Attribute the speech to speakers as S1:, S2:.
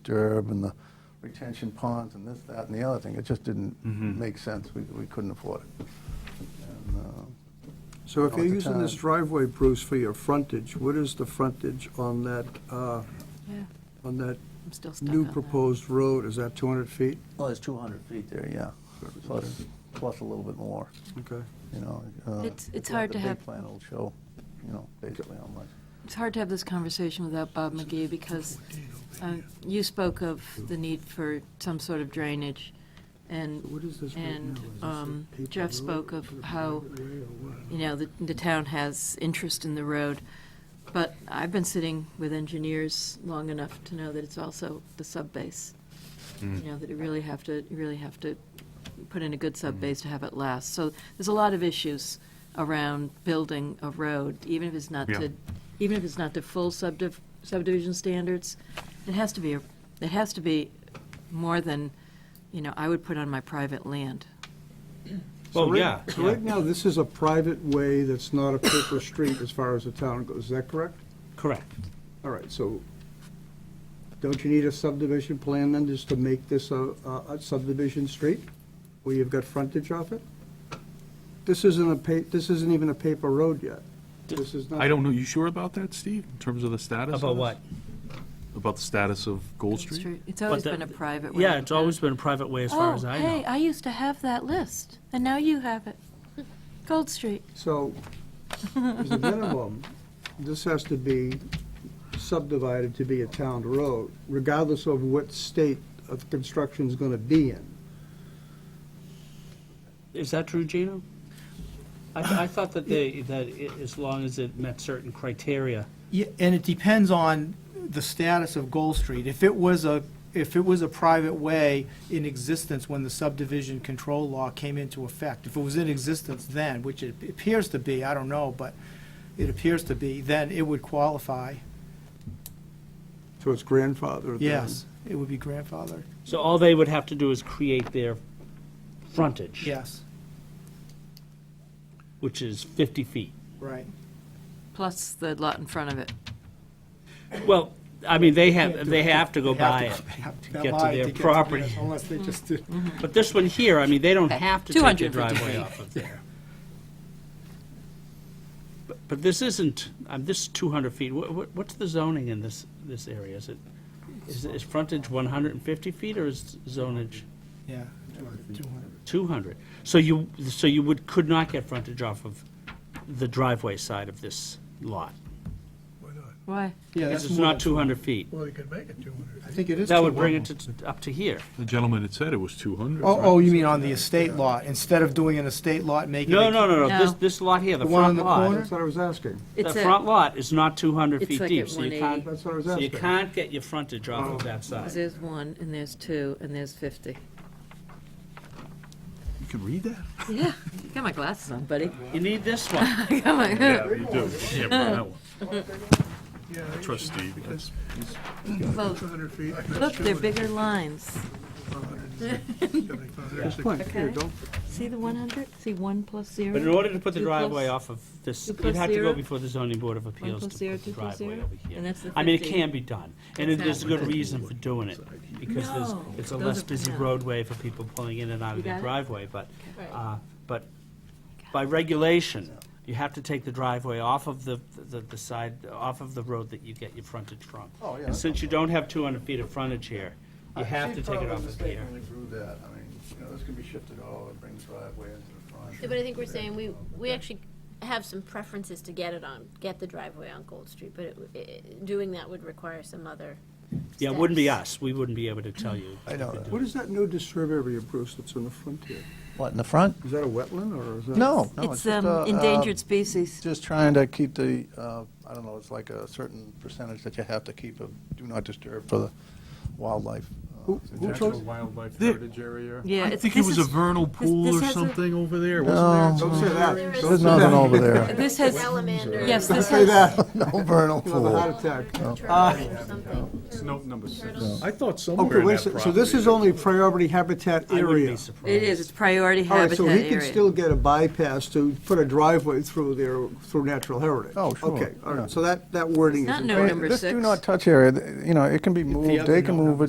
S1: disturb and the retention ponds and this, that, and the other thing. It just didn't
S2: Mm-hmm.
S1: make sense. We, we couldn't afford it. And, uh,
S3: So if
S1: Oh,
S3: you're
S1: at the
S3: using this
S1: time.
S3: driveway, Bruce, for your frontage, what is the frontage on that, uh,
S4: Yeah,
S3: on that
S4: I'm still stuck on
S3: new
S4: that.
S3: proposed road? Is that 200 feet?
S1: Well, there's 200 feet there, yeah, plus, plus a little bit more,
S3: Okay.
S1: you know. uh,
S4: It's- it's
S1: if you had
S4: hard to
S1: The
S4: have-
S1: big plan will show, you know, basically how much.
S4: It's hard to have this conversation without Bob McGee because um, you spoke of the need for some sort of drainage, and,
S3: What is this right now?
S4: and
S3: Is this a
S4: um,
S3: paper
S4: Jeff
S3: road?
S4: spoke of
S3: Is it a
S4: how,
S3: private way or what?
S4: you know, the, the town has interest in the road. But I've been sitting with engineers long enough to know that it's also the subbase. You
S5: Mm.
S4: know, that you really have to, you really have to put in a good subbase to have it last. So there's a lot of issues around building a road, even if it's not
S6: Yeah.
S4: to, even if it's not to full subdiv- subdivision standards. It has to be, a it has to be more than, you know, I would put on my private land.
S3: So
S6: Well,
S3: right-
S6: yeah,
S3: So right now, this is a private way that's not a paper street as far as the town goes. Is that correct?
S6: Correct.
S3: All right, so don't you need a subdivision plan then, just to make this a a subdivision street, where you've got frontage off it? This isn't a pa, this isn't even a paper road yet. This is not.
S5: I don't know, you sure about that, Steve, in terms of the status? of
S6: About
S5: this?
S6: what?
S5: About the status of Gold Street?
S4: It's always
S6: But the-
S4: been a private way.
S6: Yeah, it's always been a private way as far as I
S4: Oh, hey,
S6: know.
S4: I used to have that list, and now you have it. Gold Street.
S3: So, as a minimum, this has to be subdivided to be a town road, regardless of what state of construction's gonna be in.
S2: Is that true, Gino? I, th- I thought that they, that i as long as it met certain criteria.
S7: Yeah, and it depends on the status of Gold Street. If it was a, if it was a private way in existence when the subdivision control law came into effect, if it was in existence then, which it appears to be, I don't know, but it appears to be, then it would qualify.
S3: So it's grandfathered then?
S7: Yes, it would be grandfathered.
S2: So all they would have to do is create their frontage.
S7: Yes,
S2: Which is 50 feet.
S7: right.
S4: Plus the lot in front of it.
S2: Well, I mean, they have, they have to go
S7: They have
S2: buy
S7: to-
S2: it.
S7: they have to
S2: to
S7: go
S2: get to
S7: buy it
S2: their
S7: get
S2: property.
S7: theirs, Unless they just did.
S2: But this one here, I mean, they don't
S4: Okay,
S2: have to take their
S4: 250
S2: driveway
S4: feet.
S2: off of there. But- But this isn't, um, this is 200 feet. Wha- wha- What's the zoning in this, this area? Is it, is is frontage 150 feet or is zonage?
S7: Yeah. 200.
S2: 200. So you, so you would, could not get frontage off of the driveway side of this lot?
S4: Why?
S7: Yeah,
S2: Because
S7: that's
S2: it's
S7: more
S2: not
S7: than,
S2: 200 feet.
S8: Well, you could make it 200.
S7: I think it is.
S2: That would
S7: 200.
S2: bring it to, up to here.
S5: The gentleman had said it was 200.
S7: Oh, oh, you mean on the estate lot, instead of doing an estate lot, making it.
S2: No, no, no, no, this,
S4: No.
S2: this lot here, the
S7: The one
S2: front
S7: on the
S2: lot,
S7: corner?
S3: That's what I was asking.
S2: the
S4: It's a-
S2: front lot is not 200
S4: It's
S2: feet
S4: like
S2: deep,
S4: at
S2: so you
S4: 180.
S2: can't,
S3: That's what I was
S2: so you
S3: asking.
S2: can't get your frontage off of that side.
S4: There's one, and there's two, and there's 50.
S5: You can read that?
S4: Yeah, got my glasses on, buddy.
S2: You need this one.
S4: I got my-
S5: you do. Yeah, that one.
S8: Yeah, you
S5: Trust Steve.
S4: Well,
S8: 200 feet.
S4: Look, they're bigger lines.
S8: 175.
S4: Okay. See the 100? See 1 plus 0?
S2: But in order to put the
S4: Two
S2: driveway
S4: plus-
S2: off of this,
S4: two
S2: you'd
S4: plus
S2: have to go
S4: zero?
S2: before the zoning board of
S4: One
S2: appeals to
S4: plus 0,
S2: put the
S4: 2 plus
S2: driveway
S4: 0?
S2: over here.
S4: And that's the 50.
S2: I mean, it can be done, and it- there's a good
S4: Exactly.
S2: reason for doing it, because there's,
S4: No.
S2: it's a
S4: Those
S2: less
S4: are-
S2: busy
S4: yeah.
S2: roadway for people pulling in and out
S4: You
S2: of their
S4: got it?
S2: driveway, but,
S4: Right.
S2: uh, but by regulation, you have to take the driveway off of the, the, the side, off of the road that you get your frontage from.
S1: Oh, yeah.
S2: And since you don't have two hundred feet of frontage here, you have to take it off of here.
S1: She probably mistakenly drew that. I mean, you know, this could be shifted all and bring the driveway into the front.
S9: Yeah, but I think we're saying we, we actually have some preferences to get it on, get the driveway on Gold Street, but it- it- doing that would require some other
S2: Yeah, it wouldn't be
S9: steps.
S2: us, we wouldn't be able to tell you.
S1: I know that.
S3: What is that new disturb area, Bruce, that's in the front here?
S1: What, in the front?
S3: Is that a wetland, or is that?
S1: No, no, it's
S4: It's
S1: just
S4: um,
S1: a, uh,
S4: endangered species.
S1: just trying to keep the, uh, I don't know, it's like a certain percentage that you have to keep of do not disturb for the wildlife. uh,
S3: Who, who chose?
S8: Wildlife
S5: There-
S8: Heritage Area.
S4: Yeah,
S5: I
S4: it's-
S5: think it
S4: this
S5: was a
S4: is-
S5: vernal pool
S4: this
S5: or
S4: has a-
S5: something over there, wasn't there?
S3: Don't say that.
S9: There is-
S3: Don't
S1: There's
S3: say
S1: nothing
S3: that.
S1: over there.
S4: This has-
S9: Salamander.
S4: Yes, this
S3: Say
S4: has- Oh.
S3: that.
S1: No vernal
S3: You'll have a
S1: pool.
S3: heart attack.
S9: Turtles or something.
S8: It's note number six.
S5: I thought
S3: Okay,
S5: somewhere in
S3: wait,
S5: that
S3: a sec-
S5: property.
S3: so this is only priority habitat
S2: I wouldn't
S3: area.
S2: be surprised.
S4: It is, it's priority
S3: All right,
S4: habitat
S3: so
S4: area.
S3: he can still get a bypass to put a driveway through there, through natural heritage?
S1: Oh, sure,
S3: Okay, all
S1: yeah.
S3: right, so that, that wording is.
S4: It's not
S3: in
S4: no
S3: place.
S4: number
S1: This do
S4: six.
S1: not touch area, you know, it can be moved,
S2: other
S1: they can
S2: no
S1: move it,